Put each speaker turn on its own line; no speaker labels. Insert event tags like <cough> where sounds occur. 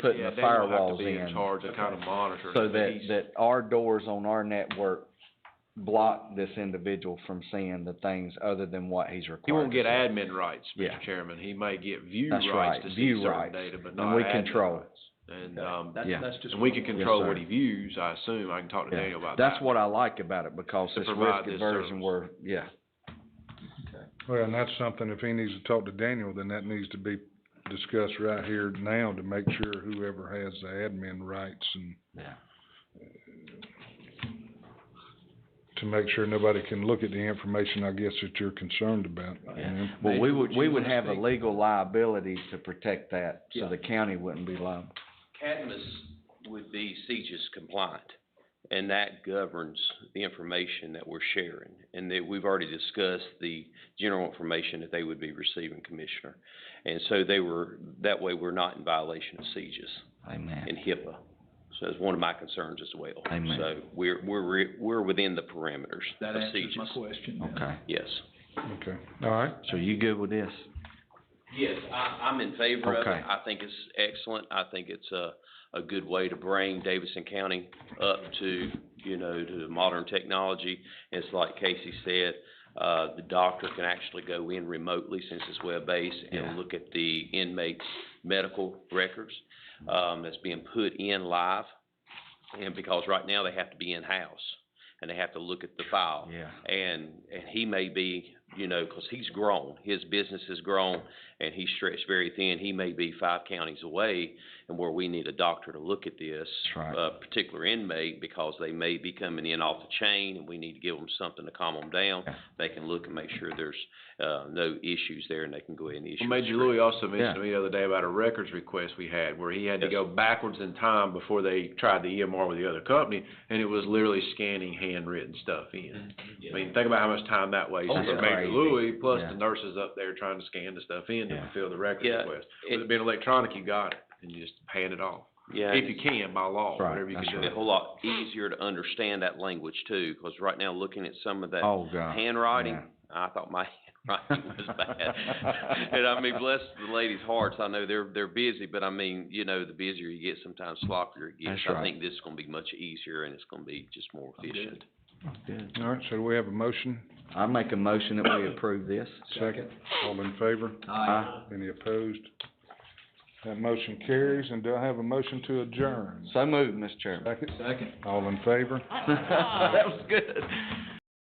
putting
Yeah,
the
Dan will have
firewalls
to be in
in.
charge to kind of monitor.
So that,
He's-
that our doors on our network block this individual from seeing the things other than what he's required.
He won't
to
get
see.
admin rights,
Yeah.
Mr. Chairman. He may get view
That's
rights
right,
to see
view
certain
rights.
data, but
And
not
we
admin
control.
rights. And,
Okay.
um,
That's,
Yeah.
that's just.
and we
one
can
way.
control what
sir.
he views, I assume. I can talk to
Yeah.
Daniel about that.
That's what I like about it, because
To
this
provide
risk
this
aversion
service.
where, yeah,
Well, and that's something, if he needs to talk to Daniel, then that needs to be discussed right here now to make sure whoever has the admin rights and
yeah.
to make sure nobody can look at the information, I guess, that you're concerned about. you
Yeah.
know?
Well, we would,
Would
we
you
would
wanna
have a
speak?
legal liability to protect that, so
Yeah.
the county wouldn't be liable.
Cadmus would be CJIS compliant, and that governs the information that we're sharing. And that we've already discussed the general information that they would be receiving, Commissioner. And so they were, that way we're not in violation of CJIS and
Amen.
HIPAA. So that's one of my concerns as well.
Amen.
So we're, we're, re- we're within the parameters of
That answers my
CJIS.
question. now.
Okay,
Yes.
Okay, all right.
so you good with this?
Yes, I, I'm in favor of
Okay.
it. I think it's excellent. I think it's a, a good way to bring Davidson County up to, you know, to modern technology. It's like Casey said, uh, the doctor can actually go in remotely since it's web-based
Yeah.
and look at the inmate's medical records, um, that's being put in live. And because right now they have to be in-house and they have to look at the file.
Yeah.
And, and he may be, you know, 'cause he's grown, his business has grown, and he's stretched very thin, he may be five counties away, and where we need a doctor to look at this.
That's right.
uh, particular inmate, because they may be coming in off the chain, and we need to give them something to calm them down.
Yeah.
They can look and make sure there's, uh, no issues there, and they can go ahead and issue.
Well,
a
Major
script.
Louis also mentioned
Yeah.
to me the other day about a records request we had, where he had to
Yes.
go backwards in time before they tried the EMR with the other company, and it was literally scanning handwritten stuff in. I mean, think about how much time that wastes
Mm-hmm. Oh,
for
yeah.
Major
crazy.
Louis, plus
Yeah.
the nurses up there trying to scan the stuff in to
Yeah.
fulfill the records
Yeah,
request. With
it-
it being electronic, you got it, and you just hand it off,
Yeah,
if you can, by law,
Right,
whatever you
that's
can
Be
do.
a whole lot easier to understand that language too, 'cause right now, looking at some of that
Oh, God.
handwriting,
yeah.
I thought my <laughs> handwriting was
<laughs>
bad. And I mean, bless the ladies' hearts, I know they're, they're busy, but I mean, you know, the busier you get, sometimes sloppier it gets.
That's
I
right.
think this is gonna be much easier and it's gonna be just more efficient.
Good.
All right, so do we have a motion,
I make a motion that we approve this.
second, all in favor,
Aye.
any opposed? That motion carries, and do I have a motion to adjourn?
So moved, Mr. Chairman.
Second,
<laughs>
Second.
all in favor?
That was good.